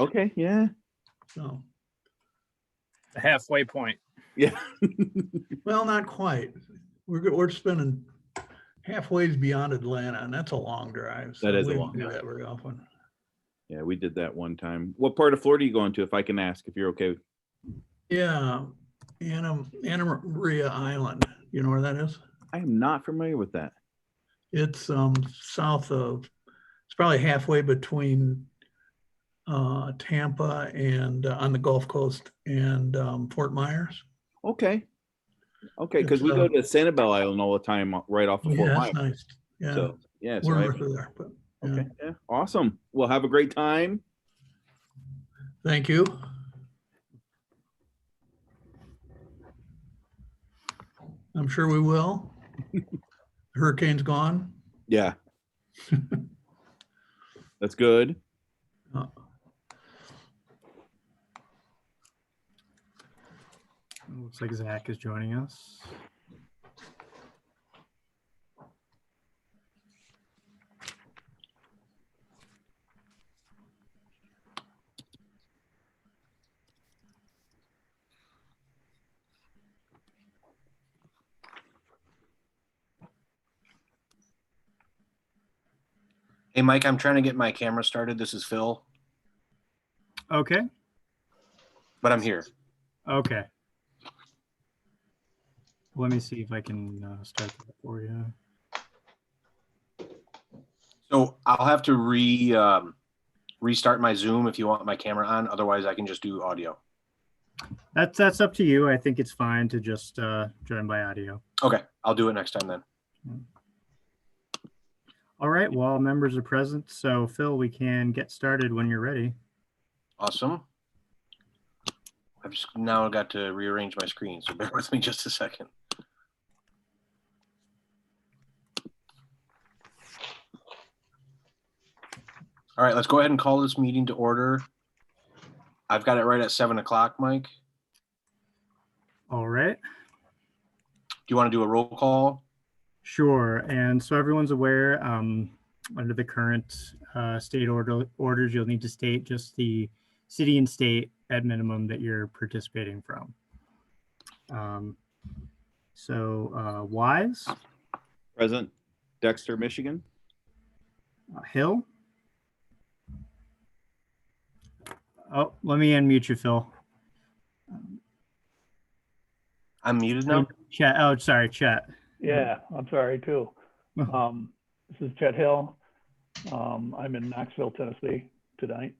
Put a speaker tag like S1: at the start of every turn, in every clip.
S1: Okay, yeah,
S2: So,
S3: The halfway point.
S1: yeah.
S2: well, not quite. We're, go- we're spending halfway beyond Atlanta and that's a long drive. so
S1: That is a
S2: we don't
S1: long
S2: do
S1: drive.
S2: that Very often.
S1: Yeah, we did that one time. What part of Florida are you going to, if I can ask, if you're okay? with
S2: Yeah, Anna, Anna Maria Island, you know where that is?
S1: I am not familiar with that.
S2: It's um south of, it's probably halfway between uh Tampa and uh, on the Gulf Coast and um Fort Myers.
S1: Okay. Okay, because
S2: It's,
S1: we go
S2: uh,
S1: to Sanibel Island all the time, uh, right off of
S2: Yeah,
S1: Fort Myers.
S2: that's nice. Yeah,
S1: So, yeah. so
S2: we're
S1: I-
S2: north of there, but yeah.
S1: Okay, yeah, awesome. Well, have a great time.
S2: thank you. I'm sure we will. Hurricane's gone.
S1: Yeah. That's good.
S2: Uh,
S4: Looks like Zach is joining us.
S5: Hey, Mike, I'm trying to get my camera started. This is Phil,
S4: Okay,
S5: but I'm here.
S4: okay. Let me see if I can uh, start that for you.
S5: So I'll have to re um, restart my Zoom if you want my camera on. Otherwise, I can just do audio.
S4: That's that's up to you. I think it's fine to just uh, join by audio.
S5: Okay, I'll do it next time then.
S4: All right. Well, all members are present, so Phil, we can get started when you're ready.
S5: Awesome. I've just now got to rearrange my screen, so bear with me just a second. All right, let's go ahead and call this meeting to order. I've got it right at seven o'clock, Mike. Do
S4: All right.
S5: you want to do a roll call?
S4: Sure. And so everyone's aware, um, under the current uh, state order orders, you'll need to state just the city and state at minimum that you're participating from. Um, so uh, Wise,
S1: Present Dexter, Michigan.
S4: uh, Hill. Oh, let me unmute you, Phil.
S5: I'm muted now.
S4: Chet. Oh, sorry, Chet.
S6: Yeah, I'm sorry too.
S4: Mhm.
S6: Um, this is Chet Hill. Um, I'm in Knoxville, Tennessee tonight.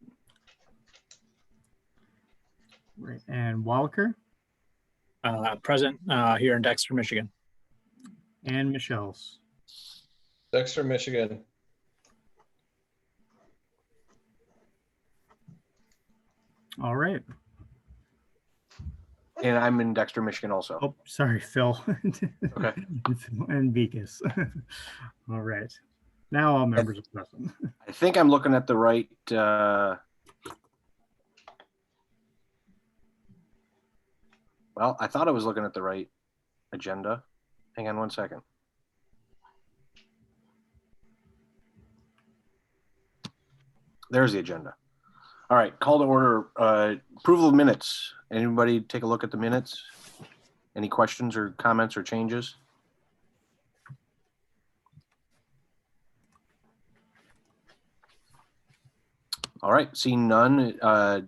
S4: Right. And Walker
S3: Uh, present uh, here in Dexter, Michigan.
S4: and Michelle's.
S7: Dexter, Michigan.
S4: All right.
S5: And I'm in Dexter, Michigan also.
S4: Oh, sorry, Phil.
S5: Okay.
S4: And Vikas. All right. Now all members are present.
S5: I think I'm looking at the right, uh, well, I thought I was looking at the right agenda. Hang on one second. There's the agenda. All right, call to order, uh, approval of minutes. Anybody take a look at the minutes? Any questions or comments or changes? All right, seeing none, uh,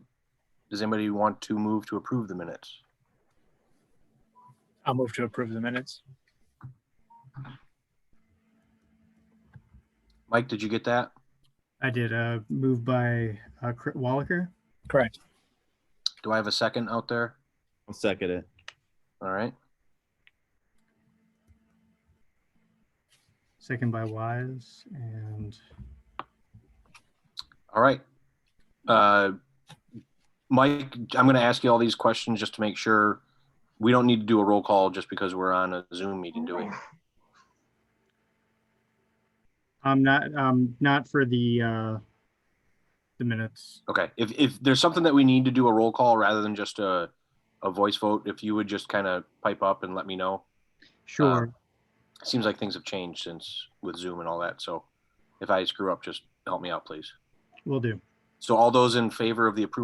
S5: does anybody want to move to approve the minutes?
S3: I'll move to approve the minutes.
S5: Mike, did you get that?
S4: I did a move by uh, Cr- Wallaker.
S3: Correct.
S5: Do I have a second out there?
S1: I'll second it.
S5: All right,
S4: second by Wise, and
S5: all right. Uh, Mike, I'm going to ask you all these questions just to make sure we don't need to do a roll call just because we're on a Zoom meeting doing.
S4: I'm not um not for the uh the minutes.
S5: Okay, if, if there's something that we need to do a roll call rather than just a, a voice vote, if you would just kind of pipe up and let me know.
S4: Sure.
S5: Seems like things have changed since with Zoom and all that, so if I screw up, just help me out, please.
S4: Will do.
S5: So all those in favor of the approval